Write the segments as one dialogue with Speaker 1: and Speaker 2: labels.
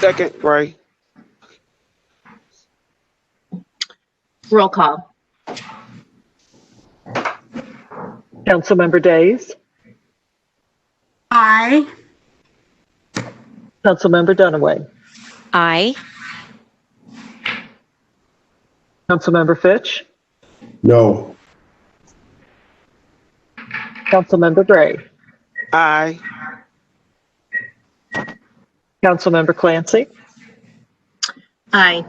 Speaker 1: Second, Ray.
Speaker 2: Roll call.
Speaker 3: Councilmember Days,
Speaker 4: Aye.
Speaker 3: Councilmember Dunaway,
Speaker 5: Aye.
Speaker 3: Councilmember Fitch,
Speaker 6: No.
Speaker 3: Councilmember Gray,
Speaker 1: Aye.
Speaker 3: Councilmember Clancy,
Speaker 2: Aye.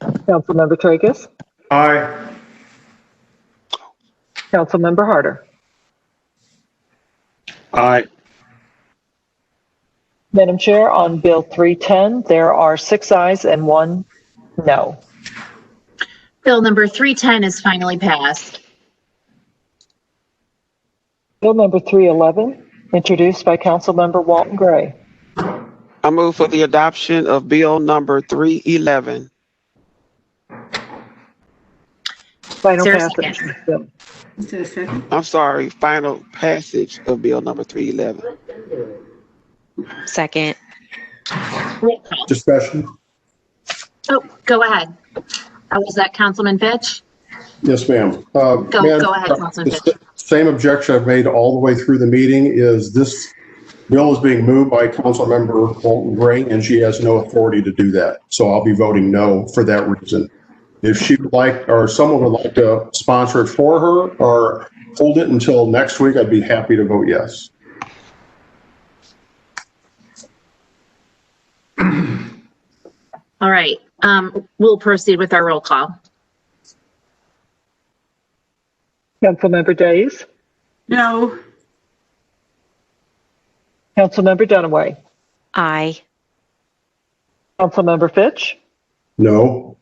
Speaker 3: Councilmember Tracus,
Speaker 6: Aye.
Speaker 3: Councilmember Harder.
Speaker 1: Aye.
Speaker 3: Madam Chair, on Bill 310, there are six ayes and one no.
Speaker 2: Bill number 310 is finally passed.
Speaker 3: Bill number 311, introduced by Councilmember Walton Gray.
Speaker 1: I move for the adoption of bill number 311.
Speaker 3: Final
Speaker 2: Is there a
Speaker 3: passage.
Speaker 2: second?
Speaker 3: Bill.
Speaker 4: Is there a second?
Speaker 1: I'm sorry, final passage of bill number 311.
Speaker 5: Second.
Speaker 2: Roll call.
Speaker 6: Discussion?
Speaker 2: Oh, go ahead. Uh, Was that Councilman Fitch?
Speaker 6: Yes, ma'am. Go,
Speaker 2: Go- go ahead, Councilman Fitch.
Speaker 6: Same objection I've made all the way through the meeting is this bill is being moved by Councilmember Walton Gray, and she has no authority to do that. So I'll be voting no for that reason. If she would like, or someone would like to sponsor it for her or hold it until next week, I'd be happy to vote yes.
Speaker 2: All right, um, we'll proceed with our roll call.
Speaker 3: Councilmember Days,
Speaker 4: No.
Speaker 3: Councilmember Dunaway,
Speaker 5: Aye.
Speaker 3: Councilmember Fitch,
Speaker 6: No?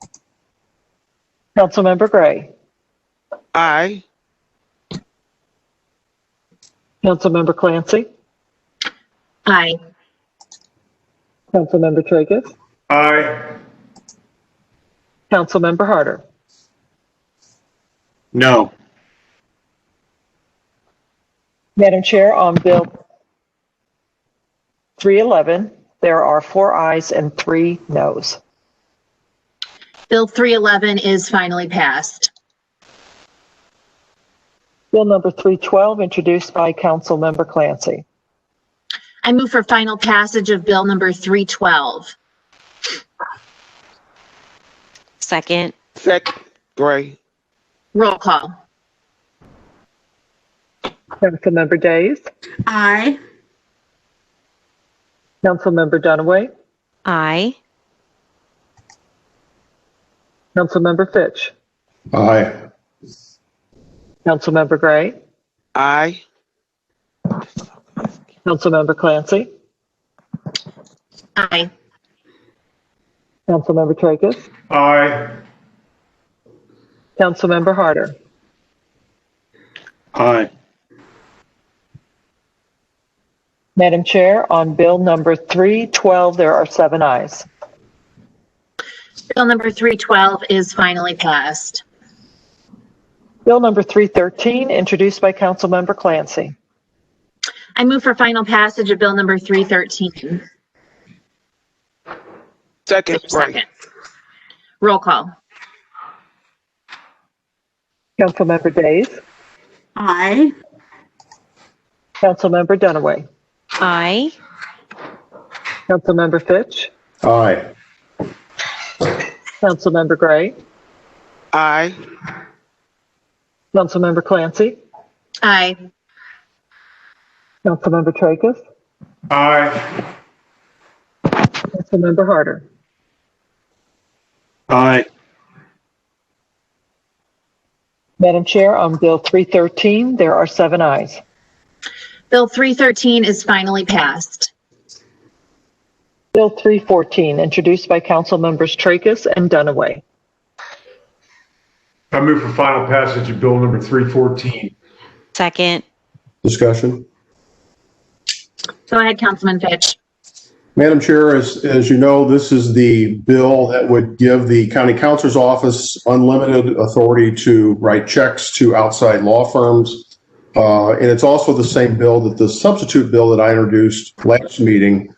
Speaker 3: Councilmember Gray,
Speaker 1: Aye.
Speaker 3: Councilmember Clancy,
Speaker 2: Aye.
Speaker 3: Councilmember Tracus,
Speaker 6: Aye.
Speaker 3: Councilmember Harder.
Speaker 6: No.
Speaker 3: Madam Chair, on Bill 311, there are four ayes and three noes.
Speaker 2: Bill 311 is finally passed.
Speaker 3: Bill number 312, introduced by Councilmember Clancy.
Speaker 2: I move for final passage of Bill number 312.
Speaker 5: Second.
Speaker 1: Second, Gray.
Speaker 2: Roll call.
Speaker 3: Councilmember Days,
Speaker 4: Aye.
Speaker 3: Councilmember Dunaway,
Speaker 5: Aye.
Speaker 3: Councilmember Fitch,
Speaker 6: Aye.
Speaker 3: Councilmember Gray,
Speaker 1: Aye.
Speaker 3: Councilmember Clancy,
Speaker 2: Aye.
Speaker 3: Councilmember Tracus,
Speaker 6: Aye.
Speaker 3: Councilmember Harder.
Speaker 6: Aye.
Speaker 3: Madam Chair, on Bill number 312, there are seven ayes.
Speaker 2: Bill number 312 is finally passed.
Speaker 3: Bill number 313, introduced by Councilmember Clancy.
Speaker 2: I move for final passage of Bill number 313.
Speaker 1: Second, Gray.
Speaker 2: Second. Roll call.
Speaker 3: Councilmember Days,
Speaker 4: Aye.
Speaker 3: Councilmember Dunaway,
Speaker 5: Aye.
Speaker 3: Councilmember Fitch,
Speaker 6: Aye.
Speaker 3: Councilmember Gray,
Speaker 1: Aye.
Speaker 3: Councilmember Clancy,
Speaker 2: Aye.
Speaker 3: Councilmember Tracus,
Speaker 6: Aye.
Speaker 3: Councilmember Harder.
Speaker 6: Aye.
Speaker 3: Madam Chair, on Bill 313, there are seven ayes.
Speaker 2: Bill 313 is finally passed.
Speaker 3: Bill 314, introduced by Councilmembers Tracus and Dunaway.
Speaker 7: I move for final passage of bill number 314.
Speaker 5: Second.
Speaker 6: Discussion?
Speaker 2: Go ahead, Councilman Fitch.
Speaker 6: Madam Chair, as, as you know, this is the bill that would give the county counselor's office unlimited authority to write checks to outside law firms. Uh, and it's also the same bill that the substitute bill that I introduced last meeting